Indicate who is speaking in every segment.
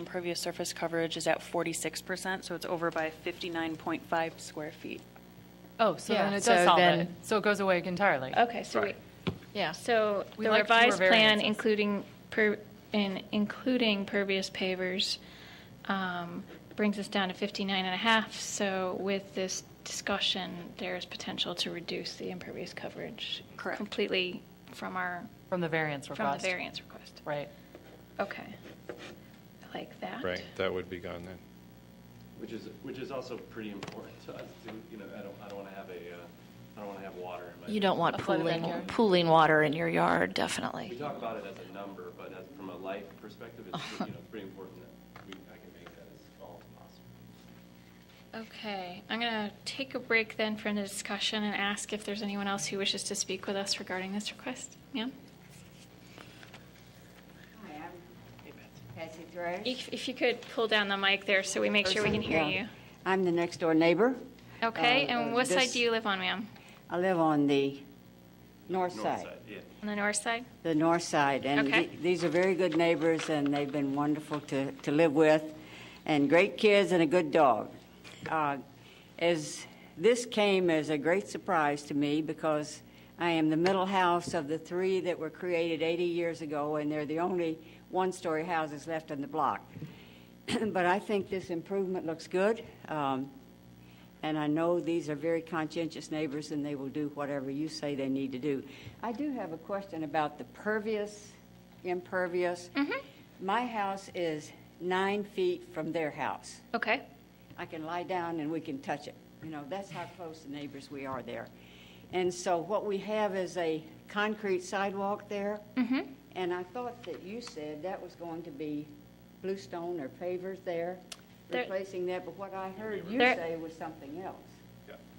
Speaker 1: Impervious surface coverage is at 46%, so it's over by 59.5 square feet.
Speaker 2: Oh, so
Speaker 3: Yeah,
Speaker 2: then it
Speaker 3: so
Speaker 2: does solve it.
Speaker 3: then-
Speaker 2: So it goes away entirely.
Speaker 4: Okay, so we,
Speaker 3: Yeah.
Speaker 4: so
Speaker 2: We
Speaker 4: the
Speaker 2: like fewer
Speaker 4: revised plan,
Speaker 2: variances.
Speaker 4: including, per- in- including pervious pavers, um, brings us down to 59 and a half. So with this discussion, there is potential to reduce the impervious coverage.
Speaker 1: Correct.
Speaker 4: Completely from our,
Speaker 2: From the variance
Speaker 4: from the
Speaker 2: request.
Speaker 4: variance request.
Speaker 2: Right.
Speaker 4: Okay. I like that.
Speaker 5: Right, that would be gone then.
Speaker 6: Which is, which is also pretty important to us, to, you know, I don't, I don't want to have a, uh, I don't want to have water in my.
Speaker 3: You don't want
Speaker 2: A flooded
Speaker 3: pooling,
Speaker 2: backyard.
Speaker 3: pooling water in your yard,
Speaker 6: We
Speaker 3: definitely.
Speaker 6: talk about it as a number, but as, from a life perspective, it's, you know, it's pretty important that we, I can make that as small as possible.
Speaker 4: Okay, I'm going to take a break then from the discussion and ask if there's anyone else who wishes to speak with us regarding this request. Ma'am?
Speaker 7: Hi, I'm Patsy Thresh.
Speaker 4: If, if you could pull down the mic there so we make sure we can hear
Speaker 7: Yeah.
Speaker 4: you.
Speaker 7: I'm the next door neighbor.
Speaker 4: Okay,
Speaker 7: Uh,
Speaker 4: and
Speaker 7: uh,
Speaker 4: what side
Speaker 7: this-
Speaker 4: do you live on, ma'am?
Speaker 7: I live on the north
Speaker 6: North
Speaker 7: side,
Speaker 6: side, yeah.
Speaker 4: On the north side?
Speaker 7: the north side. And
Speaker 4: Okay.
Speaker 7: th- these are very good neighbors, and they've been wonderful to, to live with, and great kids and a good dog. Uh, As, this came as a great surprise to me because I am the middle house of the three that were created 80 years ago, and they're the only one-story houses left on the block. But I think this improvement looks good. Um, And I know these are very conscientious neighbors, and they will do whatever you say they need to do. I do have a question about the pervious, impervious. My house is nine feet from their house.
Speaker 4: Okay,
Speaker 7: I can lie down and we can touch it. You know, that's how close the neighbors we are there. And so what we have is a concrete sidewalk there. And I thought that you said that was going to be bluestone or pavers there,
Speaker 4: There-
Speaker 7: replacing that, but what I heard you
Speaker 4: There-
Speaker 7: say was something else.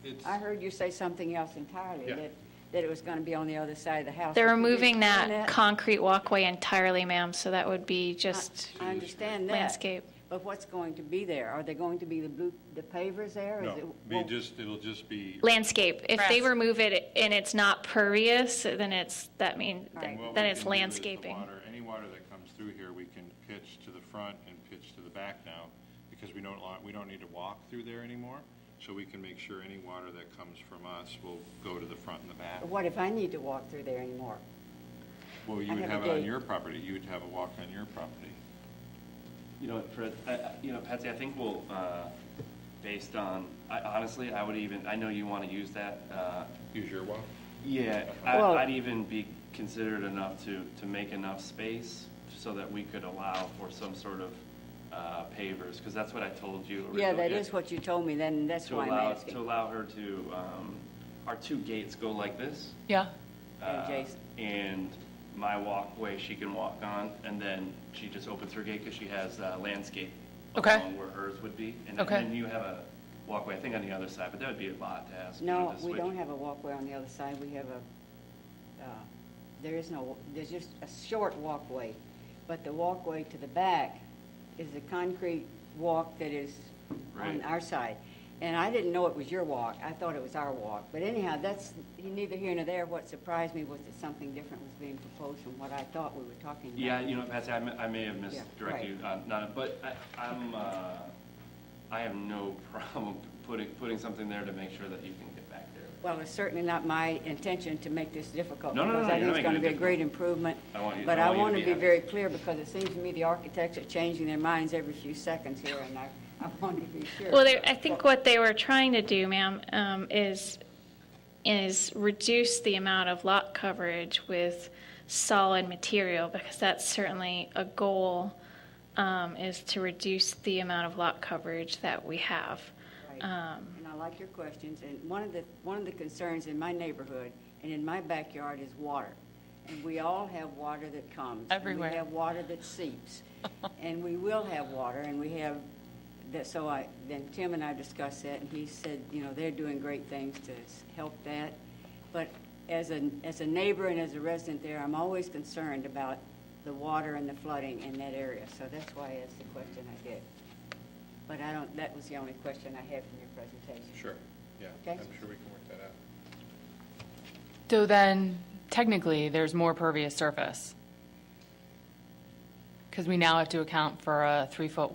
Speaker 5: It's,
Speaker 7: I heard you say something else entirely,
Speaker 5: Yeah.
Speaker 7: that, that it was going to be on the other side of the house.
Speaker 4: they're
Speaker 7: Could you
Speaker 4: removing that
Speaker 7: explain
Speaker 4: concrete walkway entirely, ma'am, so that would be just
Speaker 7: I understand that.
Speaker 4: landscape.
Speaker 7: But what's going to be there? Are there going to be the blue, the pavers there? Is
Speaker 5: no,
Speaker 7: it-
Speaker 5: be
Speaker 7: well,
Speaker 5: just, it'll just be,
Speaker 4: Landscape. If they
Speaker 2: Grass.
Speaker 4: remove it and it's not pervious, then it's, that means,
Speaker 7: Right.
Speaker 5: what we
Speaker 4: then
Speaker 5: can
Speaker 4: it's
Speaker 5: do is the
Speaker 4: landscaping.
Speaker 5: water- Any water that comes through here, we can pitch to the front and pitch to the back now, because we don't, lo- we don't need to walk through there anymore. So we can make sure any water that comes from us will go to the front and the back.
Speaker 7: What if I need to walk through there anymore?
Speaker 5: Well, you
Speaker 7: I
Speaker 5: would
Speaker 7: have a
Speaker 5: have it on
Speaker 7: gate.
Speaker 5: your property, you would have a walk on your property.
Speaker 6: You know, what, Fred, I- I- you know, Patsy, I think we'll, uh, based on, I honestly, I would even, I know you want to use that, uh,
Speaker 5: Use your walk.
Speaker 6: Yeah, I-
Speaker 7: Well-
Speaker 6: I'd even be considered enough to, to make enough space so that we could allow for some sort of uh, pavers, because that's what I told you originally.
Speaker 7: Yeah, that is what you told me then, and that's
Speaker 6: To
Speaker 7: why I'm
Speaker 6: allow, to
Speaker 7: asking.
Speaker 6: allow her to, um, our two gates go like this.
Speaker 2: Yeah.
Speaker 7: And
Speaker 6: uh,
Speaker 7: Jason.
Speaker 6: And my walkway she can walk on, and then she just opens her gate because she has uh, landscape
Speaker 2: Okay.
Speaker 6: along where hers would be. And then-
Speaker 2: Okay.
Speaker 6: And then you have a walkway, I think, on the other side, but that would be a lot to ask. you know,
Speaker 7: No,
Speaker 6: to
Speaker 7: we
Speaker 6: switch.
Speaker 7: don't have a walkway on the other side, we have a, uh, there is no, there's just a short walkway, but the walkway to the back is a concrete walk that is on
Speaker 6: Right.
Speaker 7: our side. And I didn't know it was your walk, I thought it was our walk, but anyhow, that's neither here nor there. What surprised me was that something different was being proposed from what I thought we were talking about.
Speaker 6: Yeah, you know, Patsy, I may, I may have
Speaker 7: Yeah,
Speaker 6: misdirected you, uh, not, but I, I'm, uh, I have no problem putting, putting something there to make sure that you can get back there.
Speaker 7: Well, it's certainly not my intention to make this difficult.
Speaker 6: No, no, no,
Speaker 7: Because I
Speaker 6: you're
Speaker 7: think
Speaker 6: not
Speaker 7: it's going
Speaker 6: making
Speaker 7: to be
Speaker 6: it
Speaker 7: a great improvement.
Speaker 6: I want you-
Speaker 7: But
Speaker 6: I
Speaker 7: I
Speaker 6: want you to
Speaker 7: want to
Speaker 6: be
Speaker 7: be
Speaker 6: happy.
Speaker 7: very clear because it seems to me the architects are changing their minds every few seconds here, and I, I want to be sure.
Speaker 4: Well, they- I think what they were trying to do, ma'am, um, is, is reduce the amount of lot coverage with solid material, because that's certainly a goal, um, is to reduce the amount of lot coverage that we have.
Speaker 7: Right.
Speaker 4: Um,
Speaker 7: And I like your questions, and one of the, one of the concerns in my neighborhood and in my backyard is water. And we all have water that comes. and
Speaker 2: Everywhere.
Speaker 7: we have water that seeps. And we will have water, and we have, that, so I, then Tim and I discussed that, and he said, you know, they're doing great things to s- help that. But as a, as a neighbor and as a resident there, I'm always concerned about the water and the flooding in that area. So that's why I asked the question I did. But I don't, that was the only question I had from your presentation.
Speaker 5: Sure, yeah, I'm
Speaker 7: Okay.
Speaker 5: sure we can work that out.
Speaker 2: So then technically, there's more pervious surface. because we now have to account for a three-foot